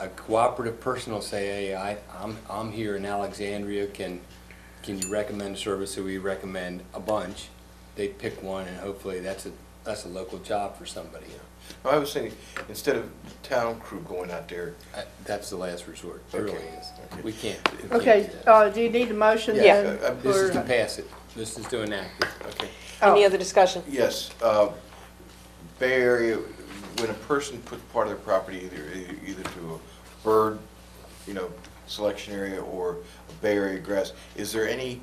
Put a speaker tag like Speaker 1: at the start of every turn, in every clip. Speaker 1: a cooperative person will say, hey, I, I'm, I'm here in Alexandria, can, can you recommend a service? So we recommend a bunch. They pick one and hopefully that's a, that's a local job for somebody.
Speaker 2: I was thinking, instead of town crew going out there,
Speaker 1: Uh, That's the last resort, it really
Speaker 2: Okay.
Speaker 1: is. We can't. we can't
Speaker 3: Okay,
Speaker 1: do that.
Speaker 3: uh, do you need a motion
Speaker 2: Yeah.
Speaker 3: then?
Speaker 2: Yeah.
Speaker 3: for-
Speaker 1: uh, This is to pass it. This is to enact it.
Speaker 2: okay,
Speaker 4: Any
Speaker 3: Oh,
Speaker 4: other discussion?
Speaker 2: yes, uh, Bay Area, when a person puts part of their property either, either to a bird, you know, selection area or a Bay Area grass, is there any,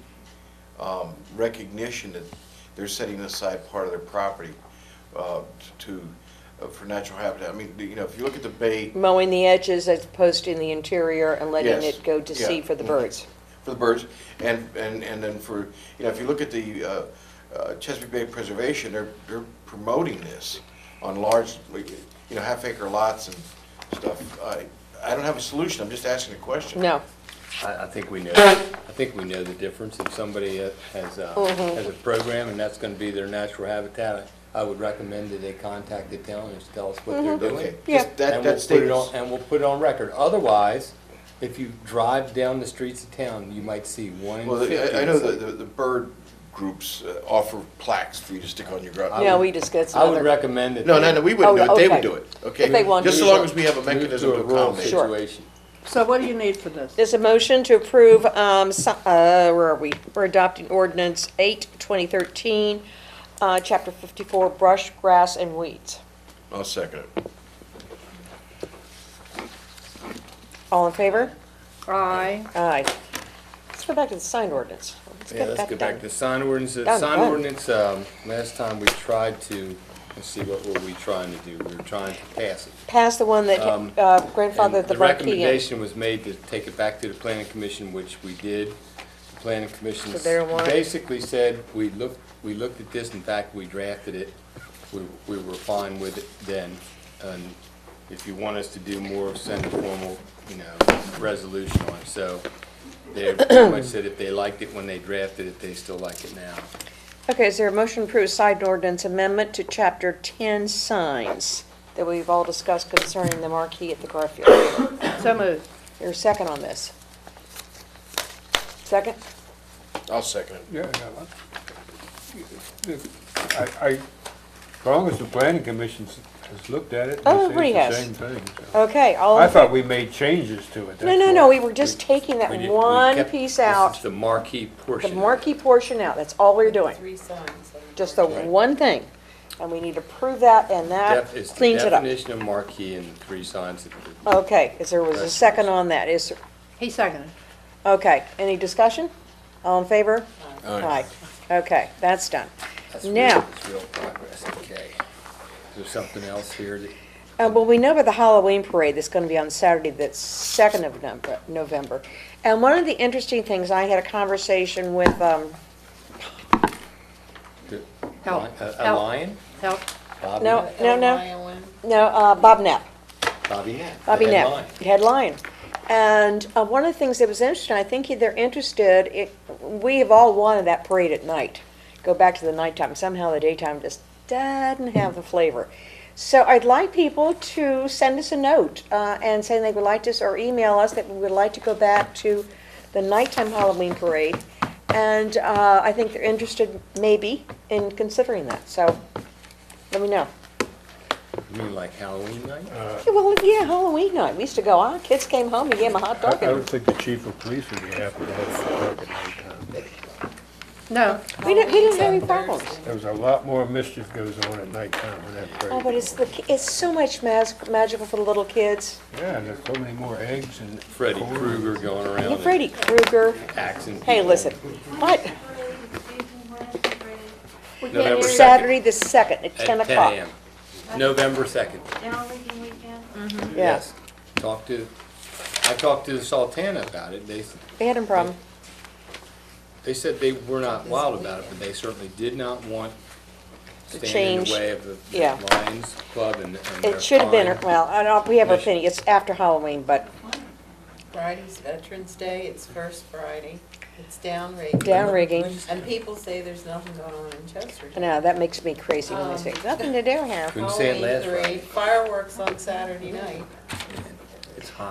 Speaker 2: um, recognition that they're setting aside part of their property, uh, to, uh, for natural habitat? I mean, you know, if you look at the bay,
Speaker 4: Mowing the edges as opposed to in the interior and letting
Speaker 2: Yes.
Speaker 4: it go to
Speaker 2: Yeah.
Speaker 4: sea for the birds.
Speaker 2: for the birds, and, and, and then for, you know, if you look at the uh, uh, Chesapeake Bay Preservation, they're, they're promoting this on large, like, you know, half acre lots and stuff. I, I don't have a solution, I'm just asking a question.
Speaker 4: No.
Speaker 1: I, I think we know, I think we know the difference. If somebody uh, has, uh,
Speaker 3: Mm-hmm.
Speaker 1: has a program and that's gonna be their natural habitat, I would recommend that they contact the town and tell us what they're
Speaker 3: Mm-hmm.
Speaker 2: Okay,
Speaker 1: doing.
Speaker 4: Yeah.
Speaker 2: just that,
Speaker 1: And we'll
Speaker 2: that
Speaker 1: put it on,
Speaker 2: statement,
Speaker 1: and we'll put it on record. Otherwise, if you drive down the streets of town, you might see one in
Speaker 2: well,
Speaker 1: fifty.
Speaker 2: I- I
Speaker 1: that's
Speaker 2: know the,
Speaker 1: like-
Speaker 2: the the bird groups uh, offer plaques for you to stick on your ground.
Speaker 4: No, we discussed
Speaker 1: I would
Speaker 4: another.
Speaker 1: recommend that.
Speaker 2: No,
Speaker 1: they
Speaker 2: no, no, we wouldn't do
Speaker 4: Oh,
Speaker 2: it, they would
Speaker 4: okay.
Speaker 2: do it, okay?
Speaker 4: If they wanted
Speaker 2: Just
Speaker 4: to.
Speaker 2: so long as we have a
Speaker 1: move
Speaker 2: mechanism
Speaker 1: a
Speaker 2: to
Speaker 1: rural
Speaker 2: accommodate.
Speaker 4: Sure.
Speaker 1: Situation.
Speaker 3: so what do you need for this?
Speaker 4: There's a motion to approve, um, so- uh, where are we? We're adopting ordinance eight, twenty thirteen, uh, chapter fifty-four, brush, grass, and weeds.
Speaker 2: I'll second it.
Speaker 4: All in favor?
Speaker 3: Aye,
Speaker 4: Aye. Let's go back to the sign ordinance. Let's
Speaker 1: Yeah, let's
Speaker 4: get
Speaker 1: go
Speaker 4: that
Speaker 1: back
Speaker 4: done.
Speaker 1: to sign ordinance. Uh,
Speaker 4: Done,
Speaker 1: Sign
Speaker 4: done.
Speaker 1: ordinance, um, last time we tried to, let's see, what were we trying to do? We were trying to pass it.
Speaker 4: Pass the one that uh, grandfathered
Speaker 1: Um, And
Speaker 4: the marquee in.
Speaker 1: recommendation was made to take it back to the planning commission, which we did. The planning commission
Speaker 4: So they're one.
Speaker 1: basically said, we looked, we looked at this, in fact, we drafted it. We, we were fine with it then. And if you want us to do more, send a formal, you know, resolution on it. So they pretty much said if they liked it when they drafted it, they still like it now.
Speaker 4: Okay, is there a motion to approve sign ordinance amendment to chapter ten signs that we've all discussed concerning the marquee at the Garfield?
Speaker 3: so moved.
Speaker 4: Your second on this? Second?
Speaker 2: I'll second it.
Speaker 5: Yeah, no, I- I, I, as long as the planning commission has looked at it,
Speaker 4: Oh,
Speaker 5: and
Speaker 4: everybody
Speaker 5: says
Speaker 4: has.
Speaker 5: the same thing. so.
Speaker 4: Okay, all.
Speaker 5: I thought we made changes to it.
Speaker 4: No,
Speaker 5: that's
Speaker 4: no, no,
Speaker 5: why.
Speaker 4: we were just taking that
Speaker 1: We did- we
Speaker 4: one
Speaker 1: kept-
Speaker 4: piece
Speaker 1: this is
Speaker 4: out,
Speaker 1: the marquee portion.
Speaker 4: the
Speaker 1: of it.
Speaker 4: marquee portion out, that's all we're doing.
Speaker 6: Three signs. on
Speaker 4: Just the one thing, and we need to prove that, and that
Speaker 1: Def- it's the
Speaker 4: cleans it up.
Speaker 1: Definition of marquee and the three signs. that the-
Speaker 4: Okay, is there was a second on that, is, there-
Speaker 3: He seconded.
Speaker 4: okay, any discussion? All in favor?
Speaker 2: Aye.
Speaker 4: Okay, that's done.
Speaker 1: That's real-
Speaker 4: Now,
Speaker 1: that's real progress, okay. Is there something else here that?
Speaker 4: Uh, well, we know about the Halloween parade that's gonna be on Saturday, that's second of November, November. And one of the interesting things, I had a conversation with, um,
Speaker 1: that-
Speaker 3: Help,
Speaker 1: A a
Speaker 3: help.
Speaker 1: lion?
Speaker 3: Help,
Speaker 1: Bobby
Speaker 4: no,
Speaker 1: Knapp?
Speaker 4: no, no,
Speaker 6: Island.
Speaker 4: no, uh, Bob Knapp.
Speaker 1: Bobby Knapp. the
Speaker 4: Bobby
Speaker 1: head
Speaker 4: Knapp,
Speaker 1: lion.
Speaker 4: head lion. And uh, one of the things that was interesting, I think they're interested, it- we have all wanted that parade at night, go back to the nighttime. Somehow the daytime just doesn't have the flavor. So I'd like people to send us a note uh, and saying they would like to, or email us that we would like to go back to the nighttime Halloween parade. And uh, I think they're interested maybe in considering that, so let me know.
Speaker 1: You mean like Halloween night?
Speaker 4: Yeah, Well, yeah, Halloween night, we used to go, our kids came home, you gave them a hot dog
Speaker 5: I I
Speaker 4: and
Speaker 5: don't think the chief of police would be happy to have it dark at nighttime.
Speaker 3: no,
Speaker 4: We didn't, we didn't have any
Speaker 6: Halloween's on
Speaker 4: problems.
Speaker 6: Thursday.
Speaker 5: There's a lot more mischief goes on at nighttime with that
Speaker 4: Oh, but
Speaker 5: parade.
Speaker 4: it's the, ki- it's so much mas- magical for the little kids.
Speaker 5: Yeah, and there's so many more eggs and.
Speaker 1: Freddy
Speaker 5: corn.
Speaker 1: Krueger going around.
Speaker 4: And
Speaker 1: and
Speaker 4: Freddy Krueger,
Speaker 1: axing
Speaker 4: hey,
Speaker 1: people.
Speaker 4: listen, what,
Speaker 1: November second,
Speaker 4: Saturday the second at
Speaker 1: at
Speaker 4: ten o'clock.
Speaker 1: 10 a.m. November second,
Speaker 7: Halloween weekend?
Speaker 4: Yes,
Speaker 1: yes. Talked to, I talked to the Sultana about it. They, s-
Speaker 4: they had a problem.
Speaker 1: they said they were not wild about it, but they certainly did not want standing in
Speaker 4: change,
Speaker 1: the way of the-
Speaker 4: yeah.
Speaker 1: the Lions Club and and their
Speaker 4: It should have been,
Speaker 1: fine.
Speaker 4: well, I don't, we have our
Speaker 1: Yes.
Speaker 4: opinion, it's after Halloween, but
Speaker 6: Friday's Veterans Day, it's first Friday, it's downrigging.
Speaker 4: Downrigging.
Speaker 6: And people say there's nothing going on in Chester.
Speaker 4: no, that makes me crazy when they say, nothing to do here.
Speaker 1: Couldn't say it
Speaker 6: Halloween
Speaker 1: last
Speaker 6: three,
Speaker 1: Friday.
Speaker 6: Fireworks on Saturday night.
Speaker 1: it's hot.